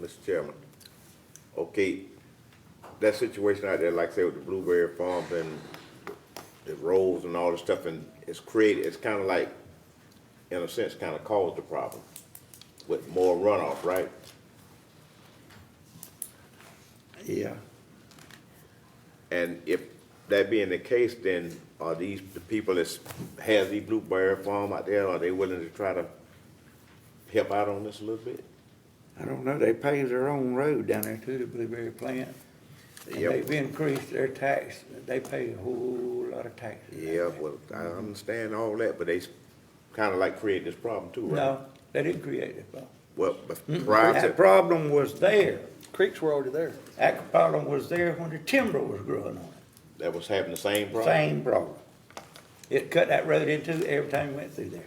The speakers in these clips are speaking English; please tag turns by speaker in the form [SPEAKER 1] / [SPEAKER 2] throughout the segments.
[SPEAKER 1] Mr. Chairman. Okay, that situation out there, like I said, with the blueberry farms and the roads and all the stuff, and it's created, it's kind of like, in a sense, kind of caused the problem with more runoff, right?
[SPEAKER 2] Yeah.
[SPEAKER 1] And if that being the case, then are these, the people that's, has the blueberry farm out there, are they willing to try to help out on this a little bit?
[SPEAKER 2] I don't know, they paved their own road down there to the blueberry plant. And
[SPEAKER 1] Yep.
[SPEAKER 2] they've increased their tax, they pay a whole lot of taxes. down
[SPEAKER 1] Yeah,
[SPEAKER 2] there.
[SPEAKER 1] well, I understand all that, but they kind of like created this problem too, right?
[SPEAKER 2] No, they didn't create it, though.
[SPEAKER 1] Well, but prior
[SPEAKER 2] That
[SPEAKER 1] to,
[SPEAKER 2] problem was there.
[SPEAKER 3] Creeks were already there.
[SPEAKER 2] That problem was there when the timber was growing on it.
[SPEAKER 1] that was having the same problem?
[SPEAKER 2] Same problem. It cut that road in two every time you went through there.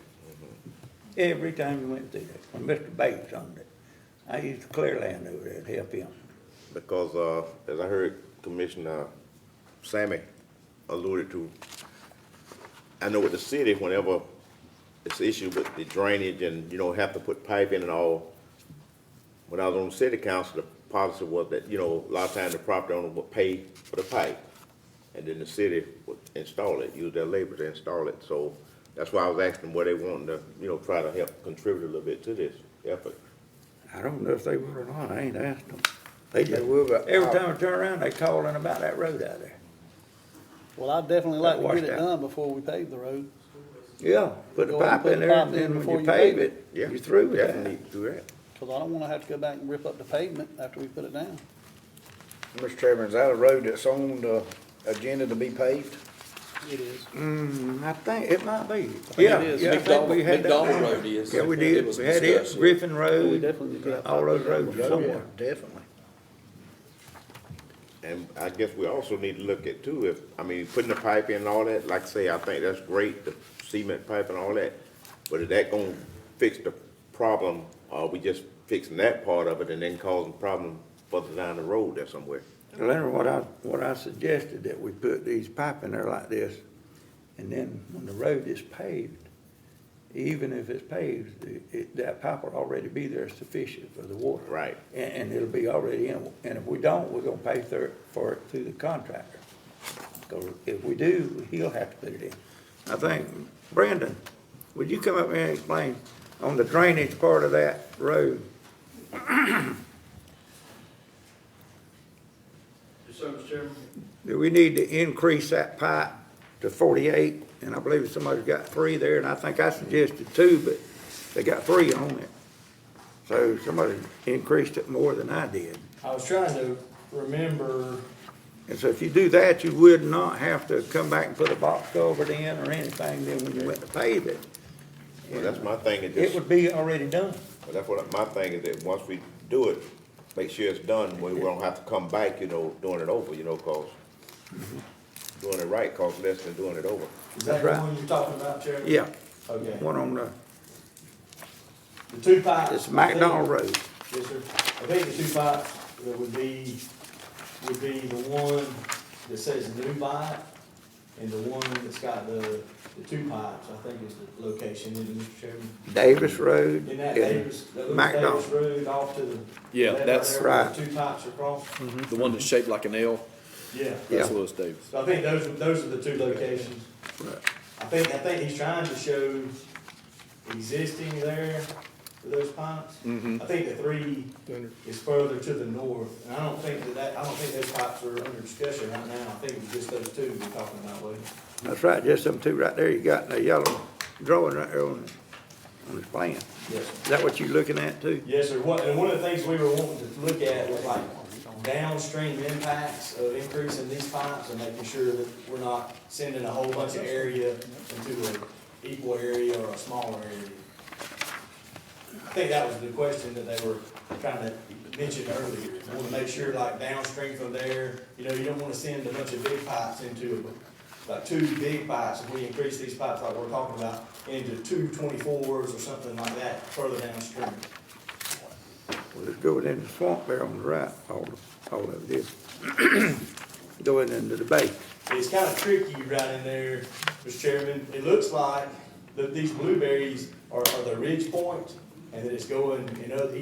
[SPEAKER 2] Every time you went through there, when Mr. Bates owned it. I used to clear land over there to help him.
[SPEAKER 1] Because, uh, as I heard Commissioner Sammy alluded to, I know with the city, whenever it's issue with the drainage and, you know, have to put pipe in and all, when I was on the city council, the policy was that, you know, a lot of times the property owner would pay for the pipe. And then the city would install it, use their labor to install it, so that's why I was asking where they wanting to, you know, try to help contribute a little bit to this effort.
[SPEAKER 2] I don't know if they were or not, I ain't asked them. They
[SPEAKER 4] They
[SPEAKER 2] just,
[SPEAKER 4] will, but
[SPEAKER 2] every
[SPEAKER 4] I-
[SPEAKER 2] time I turn around, they calling about that road out there.
[SPEAKER 3] Well, I'd definitely like to
[SPEAKER 2] Washed
[SPEAKER 3] get it
[SPEAKER 2] out.
[SPEAKER 3] done before we pave the road.
[SPEAKER 2] Yeah, put a
[SPEAKER 3] Go ahead and
[SPEAKER 2] pipe in
[SPEAKER 3] put a
[SPEAKER 2] there,
[SPEAKER 3] pipe
[SPEAKER 2] and
[SPEAKER 3] in
[SPEAKER 2] then
[SPEAKER 3] before
[SPEAKER 2] when you
[SPEAKER 3] you
[SPEAKER 2] pave
[SPEAKER 3] pave
[SPEAKER 2] it,
[SPEAKER 1] Yeah,
[SPEAKER 2] you're through with
[SPEAKER 1] definitely
[SPEAKER 2] that.
[SPEAKER 1] do that.
[SPEAKER 3] Cause I don't wanna have to go back and rip up the pavement after we put it down.
[SPEAKER 4] Mr. Chairman, is that a road that's on the agenda to be paved?
[SPEAKER 3] It is.
[SPEAKER 2] Mm, I think, it might be.
[SPEAKER 5] it
[SPEAKER 2] Yeah,
[SPEAKER 5] is.
[SPEAKER 2] yeah, I
[SPEAKER 5] Big
[SPEAKER 2] think
[SPEAKER 5] Dog-
[SPEAKER 2] we had
[SPEAKER 5] Big
[SPEAKER 2] that
[SPEAKER 5] Dog
[SPEAKER 2] one.
[SPEAKER 5] Road is.
[SPEAKER 2] Yeah, we
[SPEAKER 5] It
[SPEAKER 2] did,
[SPEAKER 5] was
[SPEAKER 2] we had it,
[SPEAKER 5] discussed.
[SPEAKER 2] Griffin Road.
[SPEAKER 3] We definitely did.
[SPEAKER 2] All those roads
[SPEAKER 4] Yeah,
[SPEAKER 2] somewhere.
[SPEAKER 4] Definitely.
[SPEAKER 1] And I guess we also need to look at too, if, I mean, putting the pipe in and all that, like I say, I think that's great, the cement pipe and all that. But is that gonna fix the problem, or are we just fixing that part of it and then causing problem further down the road there somewhere?
[SPEAKER 2] Leonard, what I, what I suggested, that we put these pipe in there like this, and then when the road is paved, even if it's paved, it- it, that pipe will already be there sufficient for the water.
[SPEAKER 1] Right.
[SPEAKER 2] And, and it'll be already in, and if we don't, we're gonna pay for, for it through the contractor. Cause if we do, he'll have to put it in. I think, Brandon, would you come up here and explain on the drainage part of that road? Do we need to increase that pipe to forty-eight? And I believe somebody's got three there, and I think I suggested two, but they got three on it. So somebody increased it more than I did.
[SPEAKER 6] I was trying to remember,
[SPEAKER 2] And so if you do that, you would not have to come back and put a box culvert in or anything, then when you went to pave it,
[SPEAKER 1] Well, that's my thing, it
[SPEAKER 2] it
[SPEAKER 1] just, well,
[SPEAKER 2] would be already done.
[SPEAKER 1] that's what, my thing is that once we do it, make sure it's done, we we don't have to come back, you know, doing it over, you know, cause doing it right costs less than doing it over.
[SPEAKER 6] is
[SPEAKER 2] That's
[SPEAKER 6] that the
[SPEAKER 2] right.
[SPEAKER 6] one you're talking about, Chairman?
[SPEAKER 2] Yeah,
[SPEAKER 6] Okay,
[SPEAKER 2] one on the,
[SPEAKER 6] the two pipes.
[SPEAKER 2] it's McDonald Road.
[SPEAKER 6] Yes, sir. I think the two pipes that would be, would be the one that says new pipe and the one that's got the, the two pipes, I think is the location, isn't it, Mr. Chairman?
[SPEAKER 2] Davis Road
[SPEAKER 6] In that
[SPEAKER 2] and
[SPEAKER 6] Davis, that little Davis
[SPEAKER 2] McDonald.
[SPEAKER 6] Road off to the.
[SPEAKER 5] Yeah,
[SPEAKER 6] left
[SPEAKER 5] that's- Mm-hmm.
[SPEAKER 6] there where the
[SPEAKER 2] Right.
[SPEAKER 6] Two pipes are crossed.
[SPEAKER 5] The one that's shaped like an L,
[SPEAKER 6] Yeah.
[SPEAKER 5] that's
[SPEAKER 2] Yeah.
[SPEAKER 5] Lewis Davis.
[SPEAKER 6] So I think those, are- those are the two locations. I think, I think he's trying to show existing there for those pipes. I think the three is further to the north, and I don't think that that, I don't think those pipes are under discussion right now. I think it's just those two we're talking about, Lee.
[SPEAKER 2] That's right, just them two right there, you got in the yellow drawing right there on the, on the plan.
[SPEAKER 6] Yes, sir.
[SPEAKER 2] Is that what you looking at too?
[SPEAKER 6] Yes, sir. What, and one of the things we were wanting to look at was like downstream impacts of increasing these pipes and making sure that we're not sending a whole bunch of area into an equal area or a smaller area. I think that was the question that they were trying to mention earlier. We want to make sure like downstream from there, you know, you don't want to send a bunch of big pipes into, like two big pipes. If we increase these pipes like we're talking about into two twenty-fours or something like that further downstream.
[SPEAKER 2] Well, it's going in the swamp there on the right, all, all of this. Going into the bay.
[SPEAKER 6] It's kind of tricky right in there, Mr. Chairman. It looks like that these blueberries are, are the ridge point, and that it's going in other,